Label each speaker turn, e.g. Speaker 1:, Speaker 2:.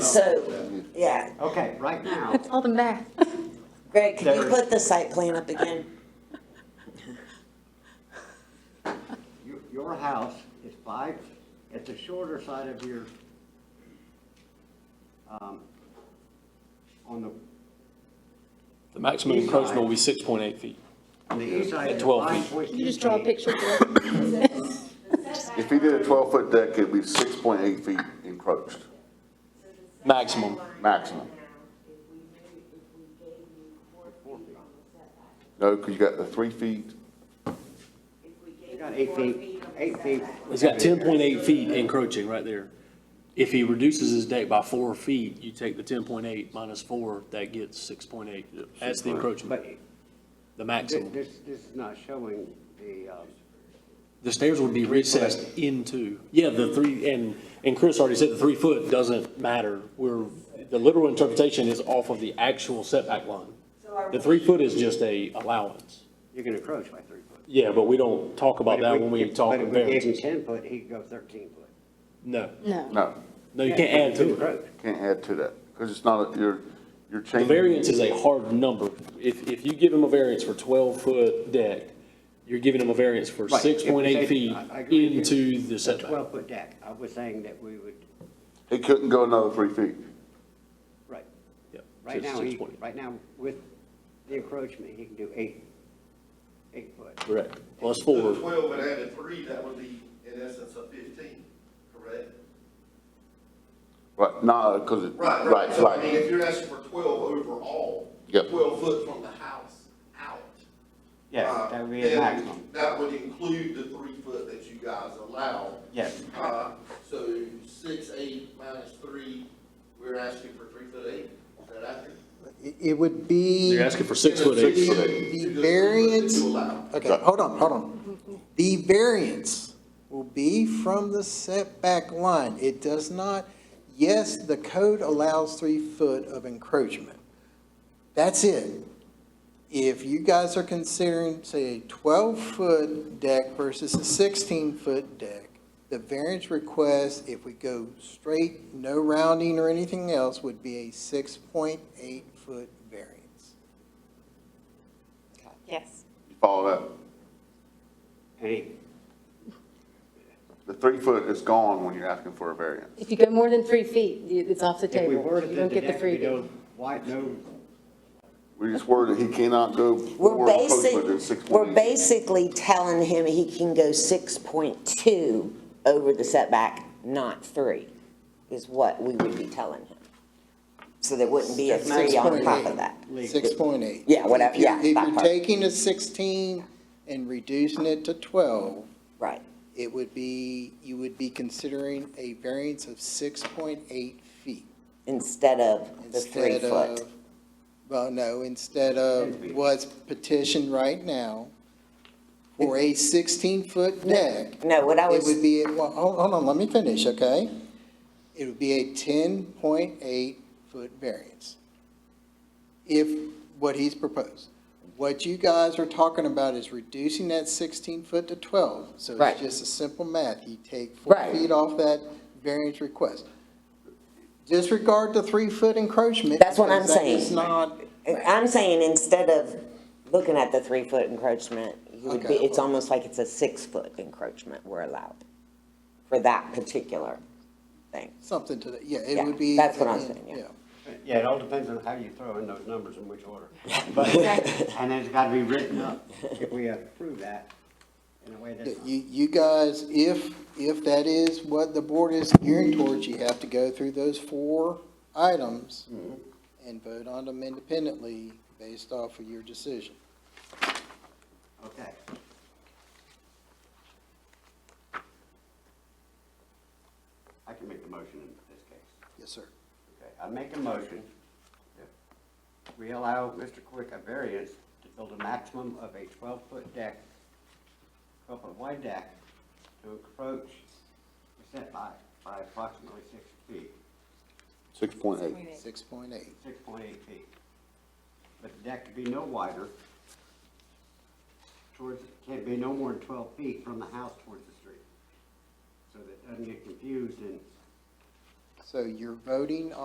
Speaker 1: So, yeah,
Speaker 2: Okay, right now,
Speaker 3: That's all the math.
Speaker 1: Greg, can you
Speaker 2: There.
Speaker 1: put the site plan up again?
Speaker 2: your, your house is five, it's the shorter side of your, um, on the,
Speaker 4: The maximum
Speaker 2: East
Speaker 4: encroachment will
Speaker 2: side.
Speaker 4: be six point eight feet.
Speaker 2: on the east side,
Speaker 4: At
Speaker 2: it's
Speaker 4: 12
Speaker 2: five
Speaker 4: feet.
Speaker 2: point two feet.
Speaker 3: You just draw a picture.
Speaker 5: If he did a twelve-foot deck, it'd be six point eight feet encroached,
Speaker 4: Maximum.
Speaker 5: maximum. No, because you got the three feet,
Speaker 2: You got eight feet, eight feet.
Speaker 4: He's got ten point eight feet encroaching right there. If he reduces his deck by four feet, you take the ten point eight minus four, that gets six point eight. That's the encroachment,
Speaker 2: But thi-
Speaker 4: the maximum.
Speaker 2: this, this is not showing the, um,
Speaker 4: The stairs would be recessed into, yeah, the three, and, and Chris already said the three foot doesn't matter. We're, the literal interpretation is off of the actual setback line. The three foot is just a allowance.
Speaker 2: you can encroach by three foot.
Speaker 4: Yeah, but we don't talk
Speaker 2: But
Speaker 4: about
Speaker 2: if
Speaker 4: that when we
Speaker 2: if-
Speaker 4: talk
Speaker 2: But if we gave him
Speaker 4: variances.
Speaker 2: ten foot, he'd go thirteen foot.
Speaker 4: No,
Speaker 3: No.
Speaker 5: no,
Speaker 4: no, you can't add to it.
Speaker 2: Encroach.
Speaker 5: can't add to that, because it's not, a- you're, you're
Speaker 4: The
Speaker 5: changing.
Speaker 4: variance is a hard number. If, if you give him a variance for twelve-foot deck, you're giving him a variance for
Speaker 2: Right.
Speaker 4: six point eight feet
Speaker 2: I- I agree with you.
Speaker 4: into the
Speaker 2: A
Speaker 4: setback.
Speaker 2: twelve foot deck, I was saying that we would,
Speaker 5: He couldn't go another three feet.
Speaker 2: right,
Speaker 4: Yep,
Speaker 2: right
Speaker 4: so
Speaker 2: now, he,
Speaker 4: 6.8.
Speaker 2: right now, with the encroachment, he can do eight, eight foot.
Speaker 4: Correct, plus
Speaker 6: So
Speaker 4: four,
Speaker 6: the twelve would add a three, that would be in essence a fifteen, correct?
Speaker 5: Right, no, because it, right,
Speaker 6: Right, right, so I mean,
Speaker 5: right.
Speaker 6: if you're asking for twelve overall,
Speaker 5: Yep.
Speaker 6: twelve foot from the house out.
Speaker 2: Yeah,
Speaker 6: uh,
Speaker 2: that would be a
Speaker 6: then
Speaker 2: maximum,
Speaker 6: That would include the three foot that you guys allow.
Speaker 2: yes.
Speaker 6: Uh, so six, eight minus three, we're asking for three foot eight, is that accurate?
Speaker 7: It- It would be
Speaker 4: you're asking for six-foot eight.
Speaker 5: Six foot eight.
Speaker 7: the
Speaker 6: To the three foot that
Speaker 7: variance,
Speaker 6: You allow.
Speaker 7: okay, hold on, hold on. The variance will be from the setback line. It does not, yes, the code allows three foot of encroachment. That's it. If you guys are considering, say, a twelve-foot deck versus a sixteen-foot deck, the variance request, if we go straight, no rounding or anything else, would be a six-point-eight-foot variance.
Speaker 3: Yes.
Speaker 5: You Follow that,
Speaker 2: And he-
Speaker 5: the three foot is gone when you're asking for a variance.
Speaker 3: If you go more than three feet, you- it's off the
Speaker 2: if we
Speaker 3: table.
Speaker 2: were to
Speaker 3: You
Speaker 2: do
Speaker 3: don't
Speaker 2: the
Speaker 3: get the
Speaker 2: deck, we
Speaker 3: freebie.
Speaker 2: don't, why, no,
Speaker 5: We just worried that he cannot go
Speaker 1: We're
Speaker 5: more encroachment than six
Speaker 1: basic, we're
Speaker 5: point eight.
Speaker 1: basically telling him he can go six point two over the setback, not three, is what we would be telling him. So there wouldn't be a three on top of that.
Speaker 7: Six point eight.
Speaker 1: Yeah, whatever, yeah,
Speaker 7: If
Speaker 1: that
Speaker 7: you're
Speaker 1: part.
Speaker 7: taking a sixteen and reducing it to twelve,
Speaker 1: Right,
Speaker 7: it would be, you would be considering a variance of six point eight feet.
Speaker 1: instead of the three
Speaker 7: instead of
Speaker 1: foot.
Speaker 7: Well, no, instead of what's petitioned right now for a sixteen-foot deck.
Speaker 1: No, what I
Speaker 7: It
Speaker 1: was,
Speaker 7: would be, well, hold hold on, let me finish, okay? It would be a ten point eight foot variance. If what he's proposed. What you guys are talking about is reducing that sixteen foot to twelve. So
Speaker 1: Right.
Speaker 7: it's just a simple math. You take four
Speaker 1: Right.
Speaker 7: feet off that variance request. Disregard the three foot encroachment.
Speaker 1: That's what
Speaker 7: because
Speaker 1: I'm
Speaker 7: that is
Speaker 1: saying.
Speaker 7: not,
Speaker 1: I'm saying instead of looking at the three foot encroachment, you would be,
Speaker 7: Okay.
Speaker 1: it's almost like it's a six foot encroachment we're allowed for that particular thing.
Speaker 7: something to that, yeah, it
Speaker 1: Yeah,
Speaker 7: would be.
Speaker 1: that's what I'm saying, yeah.
Speaker 2: yeah, it all depends on how you throw in those numbers and which order. But- And then it's gotta be written up, if we approve that, in a way
Speaker 7: Yeah,
Speaker 2: that's.
Speaker 7: You, you guys, if, if that is what the board is gearing towards, you have to go through those four items and vote on them independently based off of your decision.
Speaker 2: Okay. I can make a motion in this case.
Speaker 7: Yes, sir.
Speaker 2: Okay, I make a motion that we allow Mr. Quick a variance to build a maximum of a twelve-foot deck, twelve-foot wide deck to encroach the setback by approximately six feet,
Speaker 5: Six point eight.
Speaker 7: Six point eight.
Speaker 2: six point eight feet. But the deck could be no wider towards, can be no more than twelve feet from the house towards the street. So that it doesn't get confused and
Speaker 7: So you're voting